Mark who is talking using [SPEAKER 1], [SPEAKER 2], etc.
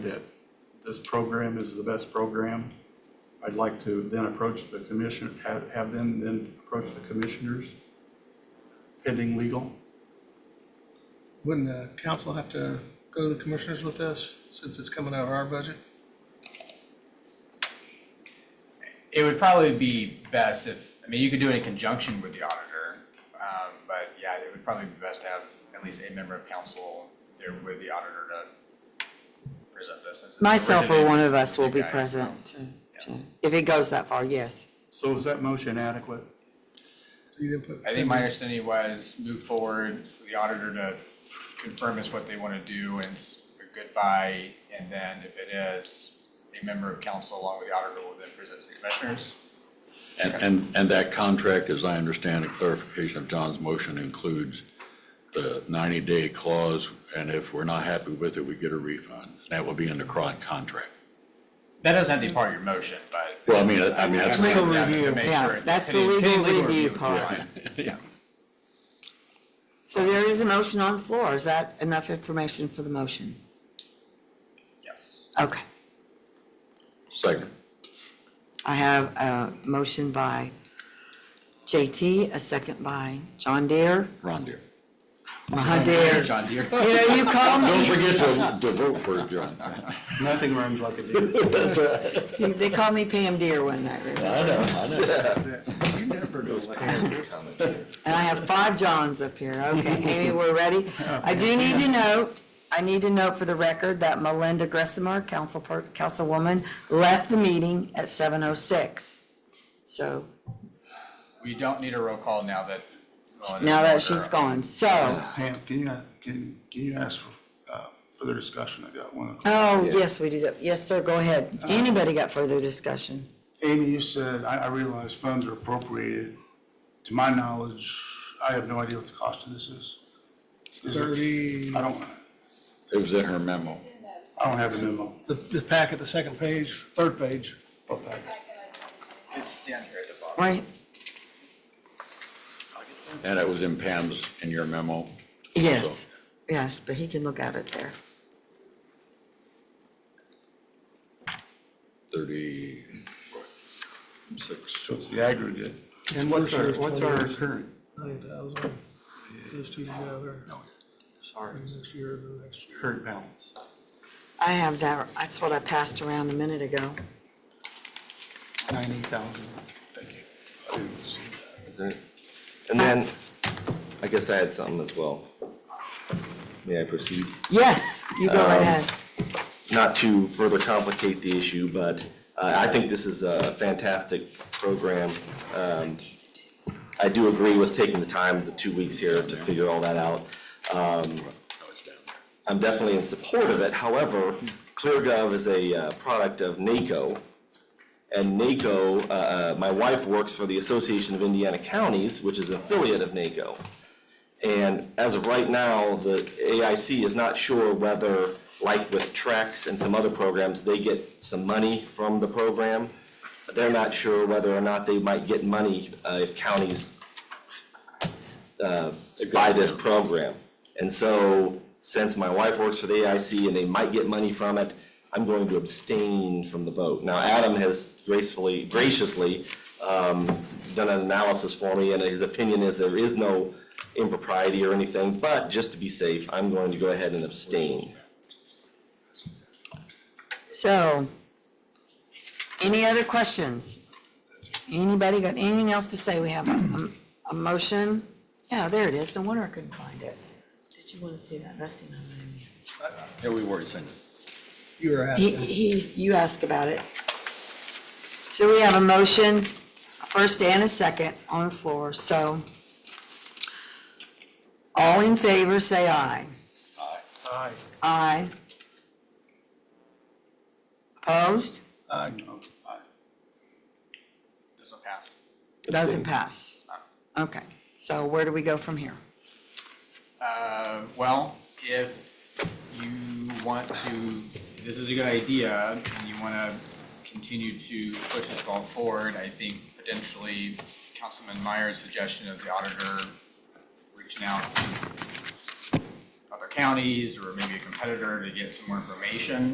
[SPEAKER 1] that this program is the best program, I'd like to then approach the commission, have, have them then approach the commissioners pending legal.
[SPEAKER 2] Wouldn't the council have to go to the commissioners with this, since it's coming out of our budget?
[SPEAKER 3] It would probably be best if, I mean, you could do it in conjunction with the auditor, um, but yeah, it would probably be best to have at least a member of council there with the auditor to present this. since it's
[SPEAKER 4] Myself or one
[SPEAKER 3] originated
[SPEAKER 4] of us will
[SPEAKER 3] from
[SPEAKER 4] be
[SPEAKER 3] you guys, so.
[SPEAKER 4] present to- to- if it goes that far, yes.
[SPEAKER 1] So is that motion adequate?
[SPEAKER 2] You didn't put-
[SPEAKER 3] I think my understanding was move forward, for the auditor to confirm is what they want to do and s- goodbye. And then if it is, a member of council along with the auditor will then present to the commissioners.
[SPEAKER 5] And, and, and that contract, as I understand it, clarification of John's motion includes the 90-day clause, and if we're not happy with it, we get a refund. That will be in the current contract.
[SPEAKER 3] That doesn't have to be part of your motion, but.
[SPEAKER 5] Well, I mean, I I mean, that's.
[SPEAKER 4] Legal
[SPEAKER 3] Yeah, to
[SPEAKER 4] review,
[SPEAKER 3] make sure
[SPEAKER 4] yeah,
[SPEAKER 3] it-
[SPEAKER 4] that's the
[SPEAKER 3] any- any
[SPEAKER 4] legal
[SPEAKER 3] review
[SPEAKER 4] review
[SPEAKER 3] would be
[SPEAKER 4] part.
[SPEAKER 3] fine.
[SPEAKER 5] Yeah.
[SPEAKER 4] So there is a motion on the floor, is that enough information for the motion?
[SPEAKER 3] Yes.
[SPEAKER 4] Okay,
[SPEAKER 5] Second.
[SPEAKER 4] I have a motion by JT, a second by John Deere,
[SPEAKER 5] Ron Deere.
[SPEAKER 4] Ron Deere.
[SPEAKER 3] John Deere.
[SPEAKER 4] You know, you call
[SPEAKER 5] Don't
[SPEAKER 4] me,
[SPEAKER 5] forget to, to vote for it, John.
[SPEAKER 1] Nothing runs like a deer.
[SPEAKER 4] they called me Pam Deere one night, remember?
[SPEAKER 5] I know, I know.
[SPEAKER 1] You never know what
[SPEAKER 4] And I have five Johns up here. Okay, Amy, we're ready.
[SPEAKER 1] Oh,
[SPEAKER 4] I do need to note, I need to note for the record that Melinda Gressimer, council per, councilwoman, left the meeting at seven oh six. So
[SPEAKER 3] We don't need a roll call now that. Melinda's
[SPEAKER 4] now
[SPEAKER 3] no
[SPEAKER 4] that
[SPEAKER 3] longer
[SPEAKER 4] she's
[SPEAKER 3] on.
[SPEAKER 4] gone, so, oh,
[SPEAKER 1] Pam, can you, not- can, can you ask for uh, further discussion? I got one.
[SPEAKER 4] oh, yes, we do. that. Yes, sir, go ahead.
[SPEAKER 1] Uh,
[SPEAKER 4] Anybody got further discussion?
[SPEAKER 1] Amy, you said, I, I realize funds are appropriated. To my knowledge, I have no idea what the cost of this is. Is it-
[SPEAKER 2] Thirty,
[SPEAKER 1] I don't,
[SPEAKER 5] It was in her memo.
[SPEAKER 1] I don't have the memo.
[SPEAKER 2] the, the packet, the second page, third page.
[SPEAKER 1] Okay.
[SPEAKER 3] It's down here at the bottom.
[SPEAKER 4] Right?
[SPEAKER 5] And it was in Pam's, in your memo.
[SPEAKER 4] Yes, yes, but he can look at it there.
[SPEAKER 5] 36.
[SPEAKER 1] So it's the aggregate.
[SPEAKER 2] And
[SPEAKER 1] What's our, what's our current?
[SPEAKER 2] Nine thousand, those two together,
[SPEAKER 1] Sorry,
[SPEAKER 2] next year, the next year.
[SPEAKER 1] current balance.
[SPEAKER 4] I have that, that's what I passed around a minute ago.
[SPEAKER 1] Ninety thousand. Thank you.
[SPEAKER 6] Isn't it? And then, I guess I had something as well. May I proceed?
[SPEAKER 4] Yes, you go right ahead.
[SPEAKER 6] Not to further complicate the issue, but uh, I think this is a fantastic program. Um, I do agree with taking the time, the two weeks here to figure all that out. Um,
[SPEAKER 5] No, it's down there.
[SPEAKER 6] I'm definitely in support of it. However, ClearGov is a uh, product of NACO. And NACO, uh, uh, my wife works for the Association of Indiana Counties, which is an affiliate of NACO. And as of right now, the AIC is not sure whether, like with Trex and some other programs, they get some money from the program. They're not sure whether or not they might get money uh, if counties uh, buy this program. And so, since my wife works for the AIC and they might get money from it, I'm going to abstain from the vote. Now, Adam has gracefully, graciously, um, done an analysis for me, and his opinion is there is no impropriety or anything, but just to be safe, I'm going to go ahead and abstain.
[SPEAKER 4] So, any other questions? Anybody got anything else to say? We have a, a motion? Yeah, there it is. No wonder I couldn't find it. Did you want to see that? That's the number.
[SPEAKER 5] Yeah, we were sent it.
[SPEAKER 2] You were
[SPEAKER 4] He,
[SPEAKER 2] asking,
[SPEAKER 4] he, you asked about it. So we have a motion, a first and a second on the floor, so. All in favor, say aye.
[SPEAKER 1] Aye.
[SPEAKER 4] Aye. Opposed?
[SPEAKER 1] Aye. Aye.
[SPEAKER 3] This will pass.
[SPEAKER 4] Doesn't pass. Okay, so where do we go from here?
[SPEAKER 3] Uh, well, if you want to, this is a good idea, and you wanna continue to push this ball forward, I think potentially Councilman Meyer's suggestion of the auditor reaching out to other counties or maybe a competitor to get some more information